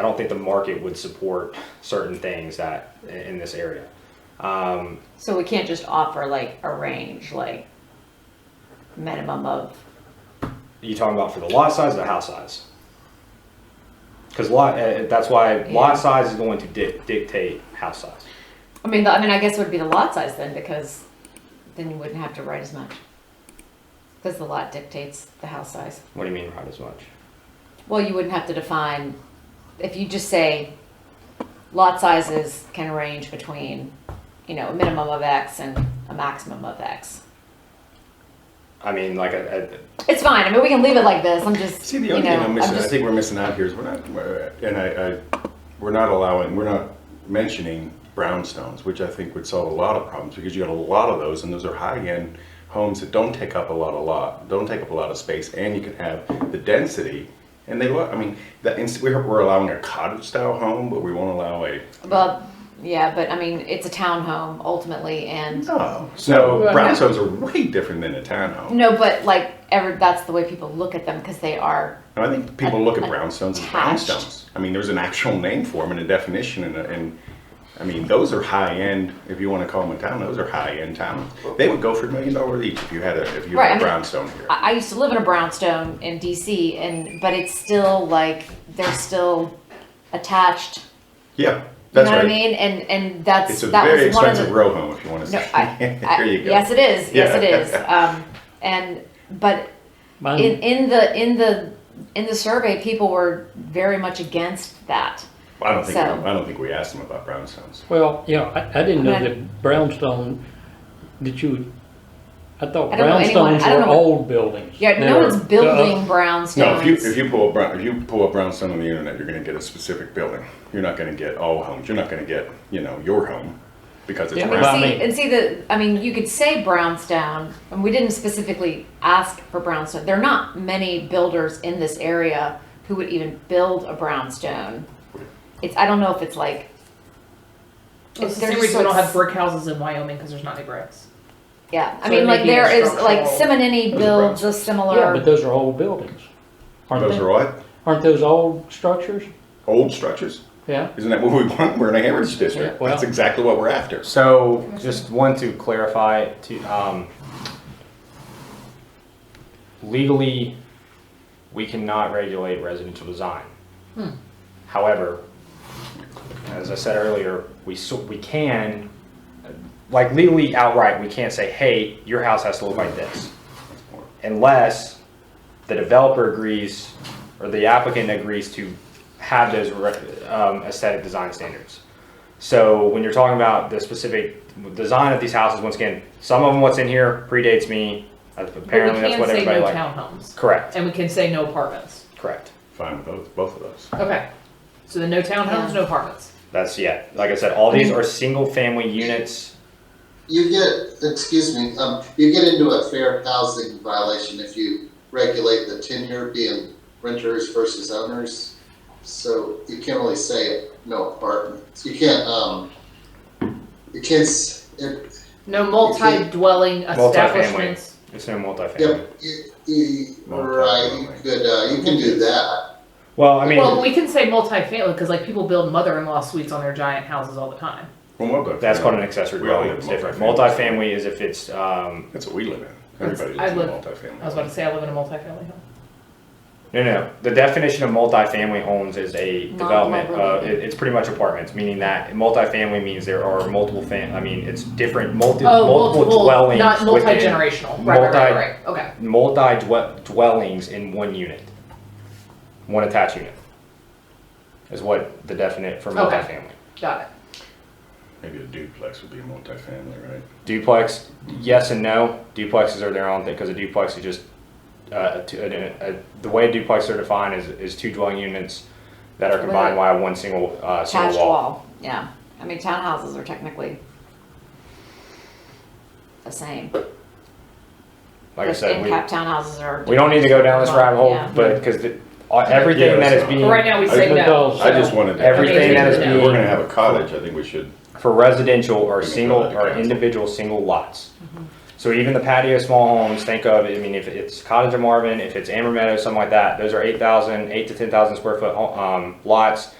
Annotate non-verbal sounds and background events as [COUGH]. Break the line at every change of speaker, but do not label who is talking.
I don't think the market would support certain things that in, in this area. Um,
So we can't just offer like a range, like minimum of,
you talking about for the lot size or the house size? Because lot, uh, that's why
Yeah.
lot size is going to dic- dictate house size.
I mean, the- I mean, I guess it would be the lot size then because then you wouldn't have to write as much. Because the lot dictates the house size.
What do you mean, right as much?
Well, you wouldn't have to define, if you just say lot sizes can range between, you know, a minimum of X and a maximum of X.
I mean, like, I, I,
It's fine. I mean, we can leave it like this. I'm just,
See, the
you
only
know,
thing I'm
I'm
missing, I
just,
think we're missing out here is we're not, we're- and I, I, we're not allowing, we're not mentioning brownstones, which I think would solve a lot of problems because you got a lot of those and those are high-end homes that don't take up a lot of lot, don't take up a lot of space, and you can have the density. And they look, I mean, that, ins- we're, we're allowing a cottage-style home, but we won't allow a,
well, yeah, but I mean, it's a townhome ultimately and
no. So brownstones are way different than a townhome.
No, but like ever, that's the way people look at them because they are.
And I think people look at brownstones as
Attached.
brownstones. I mean, there's an actual name for them and a definition, and, and I mean, those are high end. If you want to call them a town, those are high end towns. They would go for a million dollars each if you had a if you
Right, I
had a
mean-
brownstone here.
I, I used to live in a brownstone in DC, and but it's still like they're still attached. You
yeah, that's
know
right.
what I mean? And and that's
It's a
that
very
was one of
expensive
the.
row home if you want to
No,
say. [LAUGHS]
I, I,
there you go.
Yes, it is. Yes, it
Yeah.
is. Um, and but
Mine,
in, in the in the in the survey, people were very much against that.
I don't think
So-
we, I don't think we asked them about brownstones.
well, yeah, I, I didn't know
Okay.
that brownstone, did you, I thought
I don't know anyone-
brownstones
I don't
were
know what-
old buildings.
Yeah,
They
no
were-
one's building
uh,
brownstones.
No, if you if you pull a brown, if you pull a brownstone on the internet, you're going to get a specific building. You're not going to get all homes. You're not going to get you know your home because it's
Yeah,
I mean,
Well, I
see,
mean-
and see the. I mean, you could say brownstone, and we didn't specifically ask for brownstone. There are not many builders in this area who would even build a brownstone. It's. I don't know if it's like.
Well, It's the
they're
same
just
reason
so
we don't have
s-
brick houses in Wyoming because there's not any bricks.
Yeah, I
so
mean,
it may
like
be a
there is like
structural-
Simonini
Those are
builds a
brownstones.
similar.
Yeah, but those are old buildings. Aren't
Those
they?
are what?
Aren't those old structures?
old structures.
Yeah.
Isn't that what we [LAUGHS] want? We're in a heritage district.
Yeah, well-
That's exactly what we're after.
So just want to clarify to, um, legally, we cannot regulate residential design. However, as I said earlier, we, so- we can, like legally outright, we can't say, hey, your house has to look like this. Unless the developer agrees or the applicant agrees to have those re- um, aesthetic design standards. So when you're talking about the specific design of these houses, once again, some of them what's in here predates me. Uh,
But
Apparently,
we
that's
can
what
say
everybody
no
liked.
townhomes.
Correct.
And we can say no apartments.
Correct.
Fine with both, both of those.
Okay. So the no townhomes, no apartments.
That's yeah. Like I said, all these are single family units.
You get, excuse me, um, you get into a fair housing violation if you regulate the tenure being renters versus owners. So you can't really say no apartments. You can't, um, you can't, s- it,
No multi-dwelling establishments.
It's no multifamily.
yep, you, you, right, you could, uh, you can do that.
Well, I mean,
Well, we can say multifamily because like people build mother-in-law suites on their giant houses all the time.
Well, we'll go.
that's called an accessory
We all
dwelling.
live
It's
in
different.
multifamily.
Multifamily is if it's um,
That's what we live in.
That's-
Everybody
I
lives in
live-
multifamily.
I was about to say I live in a multifamily home.
no, no. The definition of multifamily homes is a development. Uh,
Non-multi-
it, it's pretty much apartments, meaning that multifamily means there are multiple fam. I mean, it's different multi
Oh,
multiple,
multiple,
dwellings,
not
within-
multi-generational. Right, right,
multi-
right, right. Okay.
multi dwe- dwellings in one unit, one attached unit, is what the definite for
Okay.
multifamily.
Got it.
Maybe a duplex would be multifamily, right?
Duplex, yes and no. Duplexes are their own thing because a duplex is just uh, two- a- a- the way duplexes are defined is, is two dwelling units that are combined by one single uh,
attached
single
wall.
wall.
Yeah, I mean townhouses are technically the same.
Like I said, we,
cap townhouses are.
we don't need to go down this rabbit hole,
Yeah.
but because everything
Yeah,
that
that's
is
not-
being
But right now we
I-
say no.
because-
I just wanted to.
Everything
that is
If
being-
We're gonna have a cottage. I think we should.
for residential or single
Let me go
or
back to
individual single lots. So even the patio small homes, think of, I mean, if it's Cottage of Marvin, if it's Amber Meadow, something like that, those are eight thousand, eight to ten thousand square foot ho- um, lots.